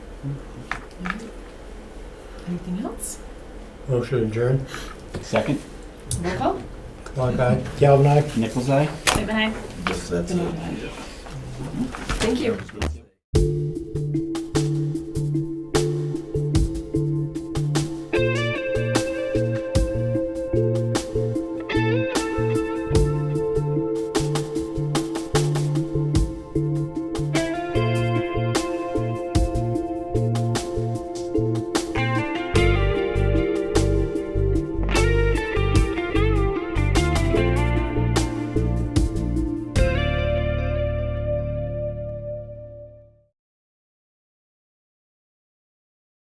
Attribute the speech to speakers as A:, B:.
A: Anything else?
B: Motion adjourned.
C: Second,
A: Roll call?
B: Clark, aye. Galvin, aye.
C: Nichols' eye?
A: Stay behind.
D: Yes, that's it.
A: Thank you.
D: That was good.